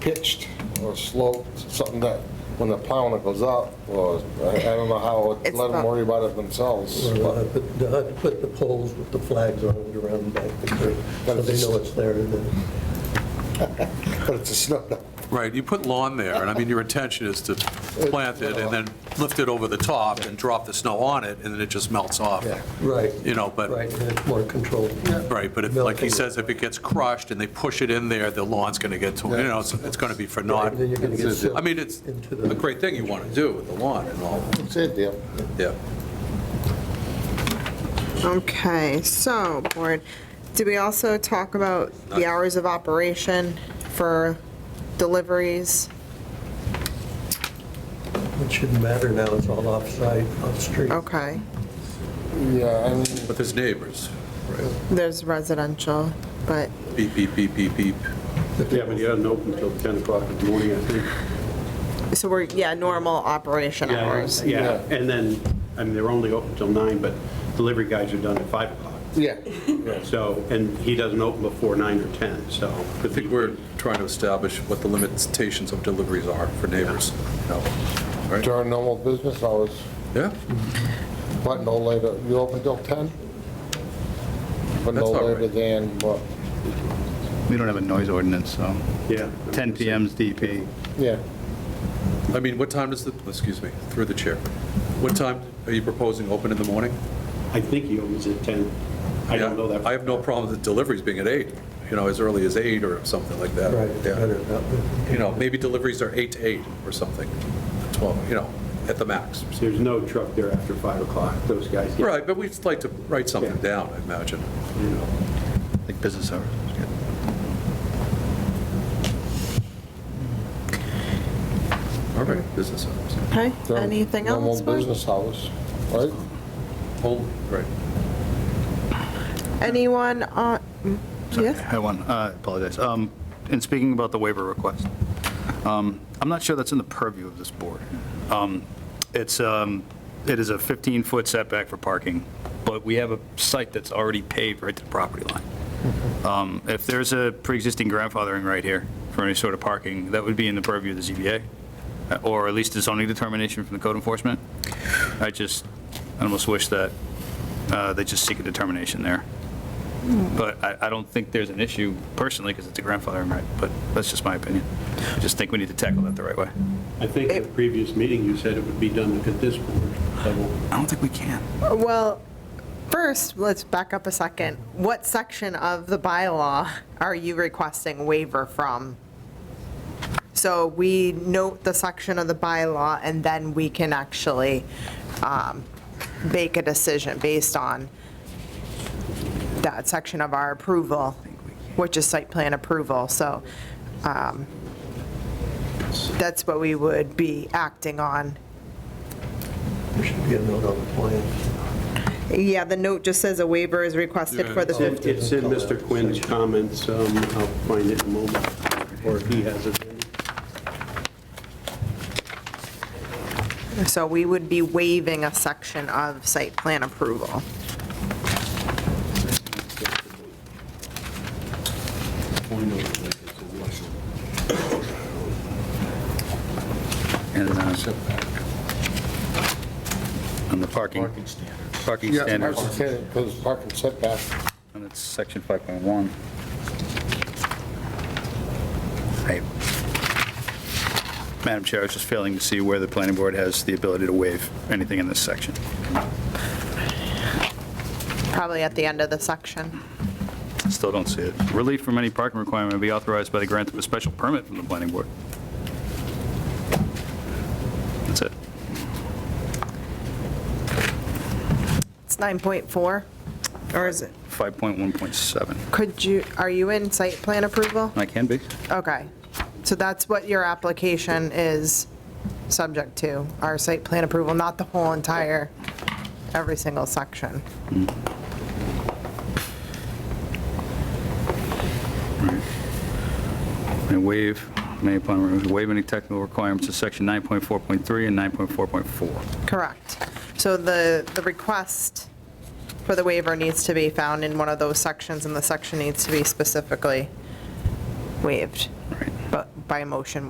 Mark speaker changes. Speaker 1: pitched or sloped, something that when the plowing it goes up, or I I don't know how,
Speaker 2: It's
Speaker 1: let them
Speaker 2: not-
Speaker 1: worry about it themselves.
Speaker 3: Well, I
Speaker 1: but-
Speaker 3: put- I put the poles with the flags on it around the back of the curb, so they know it's there, and then
Speaker 1: But it's a snow,
Speaker 4: Right, you put lawn there, and I mean, your intention is to plant it and then lift it over the top and drop the snow on it, and then it just melts off.
Speaker 1: Yeah.
Speaker 3: Right.
Speaker 4: You know, but-
Speaker 3: Right, and it's more controlled.
Speaker 4: Right, but if, like he says, if it gets crushed and they push it in there, the lawn's going to get, to- you know, it's, it's going to be for naught.
Speaker 3: Right, Then you're going to get silt.
Speaker 4: I mean, it's
Speaker 3: into
Speaker 4: a
Speaker 3: the-
Speaker 4: great thing you want to do with the lawn and all,
Speaker 1: it's a deal.
Speaker 4: yeah.
Speaker 2: Okay, so, board, did we also talk about the hours of operation for deliveries?
Speaker 3: It shouldn't matter now, it's all off-site, off-street.
Speaker 2: Okay,
Speaker 1: Yeah, I mean,
Speaker 4: But there's neighbors, right?
Speaker 2: there's residential, but,
Speaker 4: Beep, beep, beep, beep, beep.
Speaker 5: Yeah, but he doesn't open until 10 o'clock in the morning, I think.
Speaker 2: so we're, yeah, normal operation hours.
Speaker 5: Yeah, and then, I mean, they're only open till 9, but delivery guys are done at 5 o'clock.
Speaker 1: yeah,
Speaker 5: So, and he doesn't open before 9 or 10, so.
Speaker 4: I think we're trying to establish what the limitations of deliveries are for neighbors, you know, right?
Speaker 1: during normal business hours,
Speaker 4: Yeah,
Speaker 1: but no later, you open till 10? But no
Speaker 4: That's all right.
Speaker 1: later than, what?
Speaker 6: We don't have a noise ordinance, so
Speaker 5: Yeah.
Speaker 6: 10 PM's DP.
Speaker 1: yeah,
Speaker 4: I mean, what time does the, excuse me, through the chair, what time are you proposing open in the morning?
Speaker 5: I think he opens at 10. I don't know that.
Speaker 4: I have no problem with deliveries being at eight, you know, as early as eight or something like that.
Speaker 3: Right,
Speaker 4: Yeah.
Speaker 3: better about
Speaker 4: You know, maybe deliveries are eight to eight or something, 12, you know, at the max.
Speaker 5: There's no truck there after 5 o'clock, those guys. yeah.
Speaker 4: Right, but we'd like to write something down, I imagine, you know.
Speaker 6: like business hours.
Speaker 4: All right, business hours.
Speaker 2: Okay,
Speaker 1: during
Speaker 2: anything
Speaker 1: normal
Speaker 2: else? board?
Speaker 1: business hours, right?
Speaker 4: Hold, right.
Speaker 2: Anyone on, mm,
Speaker 6: Sorry, I
Speaker 2: yes,
Speaker 6: had one, I apologize. Um, In speaking about the waiver request, um, I'm not sure that's in the purview of this board. Um, It's, um, it is a 15-foot setback for parking, but we have a site that's already paved right to the property line. Um, If there's a pre-existing grandfathering right here for any sort of parking, that would be in the purview of the ZBA, uh, or at least a zoning determination from the code enforcement. I just, I almost wish that uh, they just seek a determination there. But I, I don't think there's an issue personally, because it's a grandfathering right, but that's just my opinion. I just think we need to tackle that the right way.
Speaker 5: I think in the previous meeting, you said it would be done at this board level.
Speaker 6: I don't think we can.
Speaker 2: well, first, let's back up a second. What section of the bylaw are you requesting waiver from? So we note the section of the bylaw, and then we can actually um, make a decision based on that section of our approval, which is site plan approval, so um, that's what we would be acting on.
Speaker 3: There should be a note on the plan.
Speaker 2: Yeah, the note just says a waiver is requested for the
Speaker 5: It's in-
Speaker 2: 50.
Speaker 5: It's in Mr. Quinn's comments, um, I'll find it in a moment, or if he has it.
Speaker 2: So we would be waiving a section of site plan approval.
Speaker 6: And, uh, on the parking. Parking standards. Parking standards,
Speaker 1: Because parking setback,
Speaker 6: and it's section 5.1. I- Madam Chair, I was just failing to see where the planning board has the ability to waive anything in this section.
Speaker 2: Probably at the end of the section.
Speaker 6: Still don't see it. Relief from any parking requirement will be authorized by the grant of a special permit from the planning board. That's it.
Speaker 2: It's 9.4, or is it,
Speaker 6: 5.1.7.
Speaker 2: could you, are you in site plan approval?
Speaker 6: I can be.
Speaker 2: Okay, so that's what your application is subject to, our site plan approval, not the whole entire, every single section.
Speaker 6: And waive, may upon, waive any technical requirements of section 9.4.3 and 9.4.4.
Speaker 2: Correct. So the, the request for the waiver needs to be found in one of those sections, and the section needs to be specifically waived.
Speaker 6: Right.
Speaker 2: but by motion,